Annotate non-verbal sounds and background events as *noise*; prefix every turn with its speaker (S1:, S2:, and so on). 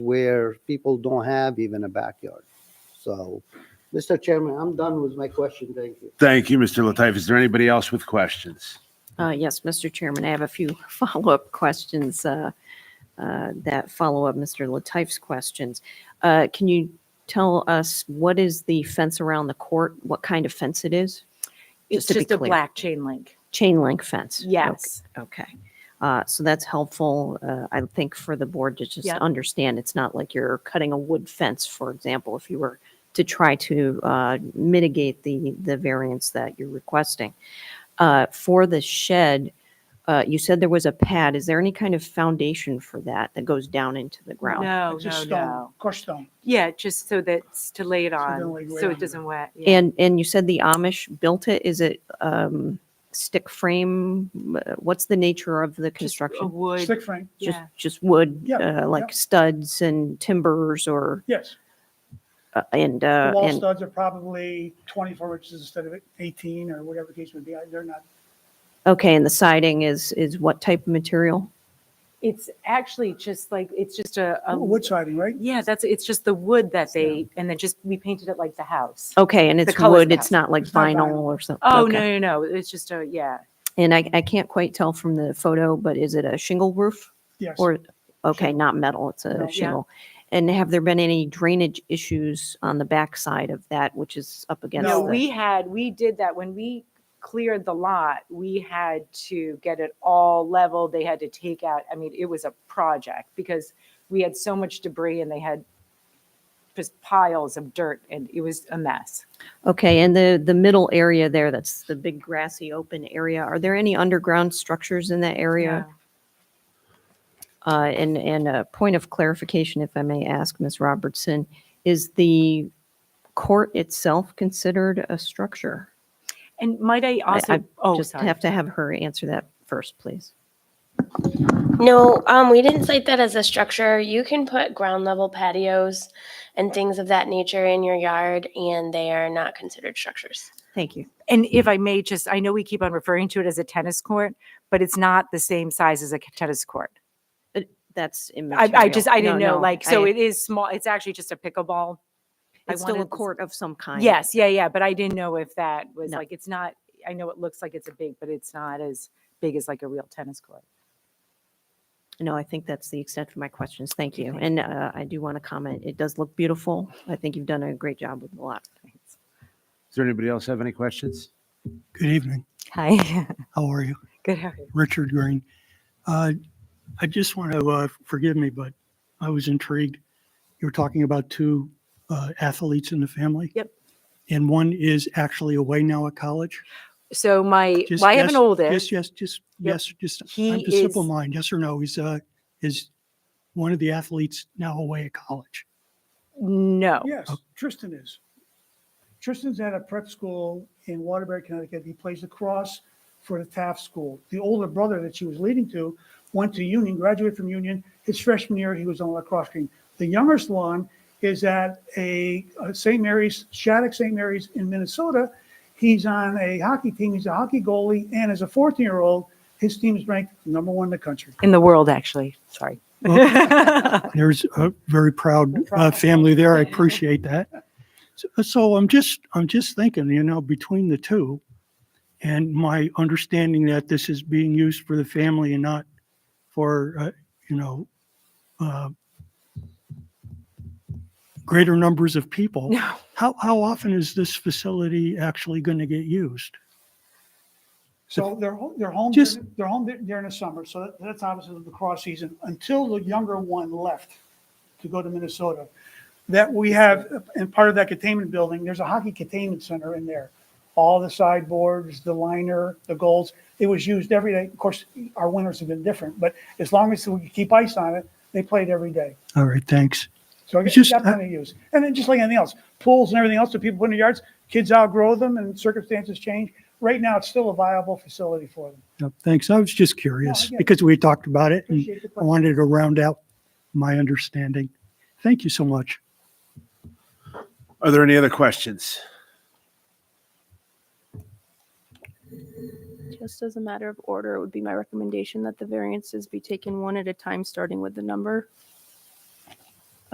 S1: where people don't have even a backyard. So, Mr. Chairman, I'm done with my question. Thank you.
S2: Thank you, Mr. Lataif. Is there anybody else with questions?
S3: Uh, Yes, Mr. Chairman, I have a few *laughs* follow-up questions uh, uh, that follow up Mr. Lataif's questions. Uh, Can you tell us what is the fence around the court? What kind of fence it is?
S4: It's
S3: Just to be
S4: just a
S3: clear.
S4: black chain link.
S3: Chain link fence?
S4: Yes.
S3: Okay. Uh, So that's helpful, uh, I think, for the board to just
S4: Yep.
S3: understand. It's not like you're cutting a wood fence, for example, if you were to try to uh, mitigate the, the variance that you're requesting. Uh, For the shed, uh, you said there was a pad. Is there any kind of foundation for that that goes down into the ground?
S4: No,
S5: It's a
S4: no,
S5: stone,
S4: no.
S5: crushed stone.
S4: Yeah, just so that's to lay it
S5: don't lay
S4: on,
S5: it right
S4: so
S5: on
S4: it
S5: you.
S4: doesn't wet. yeah.
S3: And, and you said the Amish built it? Is it um, stick frame? Uh, What's the nature of the
S4: Just A
S3: construction?
S4: wood,
S5: Stick frame,
S3: Just,
S4: yeah.
S3: just wood,
S5: Yeah,
S3: uh,
S5: yeah.
S3: like studs and timbers or,
S5: yes.
S3: uh, and,
S5: The
S3: uh,
S5: wall
S3: and,
S5: studs are probably 24 inches instead of 18 or whatever the case may be. I- They're not,
S3: okay, and the siding is, is what type of material?
S4: It's actually just like, it's just a,
S3: Um,
S4: a-
S5: wood siding, right?
S4: yeah, that's, it's just the wood that they, and then just, we painted it like the house.
S3: Okay, and it's
S4: colors of
S3: wood,
S4: the
S3: it's
S4: house.
S3: not like
S5: It's not
S3: vinyl
S5: vinyl.
S3: or something?
S4: Oh, no, no, no, it's just a, yeah.
S3: And I, I can't quite tell from the photo, but is it a shingle roof?
S5: Yes.
S3: Or, okay, not metal, it's
S5: No. Yeah.
S3: a shingle. And have there been any drainage issues on the backside of that, which is up against?
S4: No,
S3: the-
S4: we had, we did that when we cleared the lot, we had to get it all level. They had to take out, I mean, it was a project because we had so much debris and they had just piles of dirt and it was a mess.
S3: Okay, and the, the middle area there, that's the big grassy open area, are there any underground structures in that area? Uh, And, and a point of clarification, if I may ask, Ms. Robertson, is the court itself considered a structure?
S4: And might I
S3: I-
S4: also,
S3: I
S4: oh,
S3: Just
S4: sorry.
S3: have to have her answer that first, please.
S6: No, um, we didn't cite that as a structure. You can put ground level patios and things of that nature in your yard, and they are not considered structures.
S3: Thank you.
S4: And if I may just, I know we keep on referring to it as a tennis court, but it's not the same size as a tennis court.
S3: That's
S4: I,
S3: immaterial.
S4: I just, I didn't
S3: No,
S4: know,
S3: no,
S4: like, so
S3: I-
S4: it is small, it's actually just a pickleball. I
S3: It's still a
S4: wanted this-
S3: court of some kind.
S4: Yes, yeah, yeah, but I didn't know if that was
S3: No.
S4: like, it's not, I know it looks like it's a big, but it's not as big as like a real tennis court. *laughs*
S3: No, I think that's the extent of my questions. Thank you. And uh, I do want to comment, it does look beautiful. I think you've done a great job with the lot.
S2: Does there anybody else have any questions?
S7: Good evening.
S4: Hi,
S7: How are you?
S4: good, how are you?
S7: Richard Green. Uh, I just want to, uh, forgive me, but I was intrigued. You were talking about two uh, athletes in the family?
S4: Yep.
S7: And one is actually away now at college?
S4: So my,
S7: Just
S4: well, I have an
S7: yes-
S4: oldest.
S7: Yes, yes, just,
S4: Yep.
S7: yes, just,
S4: He
S7: I'm a simple
S4: is-
S7: mind, yes or no, is, uh, is one of the athletes now away at college?
S4: No,
S5: Yes, Tristan is. Tristan's at a prep school in Waterbury, Connecticut. He plays lacrosse for the Taft School. The older brother that she was leading to went to Union, graduated from Union. His freshman year, he was on the lacrosse team. The youngest one is at a a St. Mary's, Shattuck St. Mary's in Minnesota. He's on a hockey team. He's a hockey goalie. And as a 14-year-old, his team is ranked number one in the country.
S4: in the world, actually, sorry.
S7: There's a very proud uh, family there. *laughs* I appreciate that. So, so I'm just, I'm just thinking, you know, between the two and my understanding that this is being used for the family and not for, uh, you know, uh, greater numbers of people.
S4: *laughs*
S7: *laughs*
S4: No.
S7: How, how often is this facility actually going to get used?
S5: So they're, ho- they're home,
S7: Just-
S5: during- they're home dur- during the summer, so that- that's obviously the cross season, until the younger one left to go to Minnesota. That we have, and part of that containment building, there's a hockey containment center in there. All the sideboards, the liner, the goals, it was used every day. Of course, our winters have been different, but as long as we could keep ice on it, they played every day.
S7: All right, thanks.
S5: So I guess
S7: just-
S5: that's plenty of use. And then just like anything else, pools and everything else that people put in their yards, kids outgrow them and circumstances change. Right now, it's still a viable facility for them.
S7: No, Thanks. I was just curious
S5: get it.
S7: because we talked about it and
S5: Appreciate the
S7: I
S5: question.
S7: wanted to round out my understanding. Thank you so much.
S2: Are there any other questions?
S8: Just as a matter of order, it would be my recommendation that the variances be taken one at a time, starting with the number.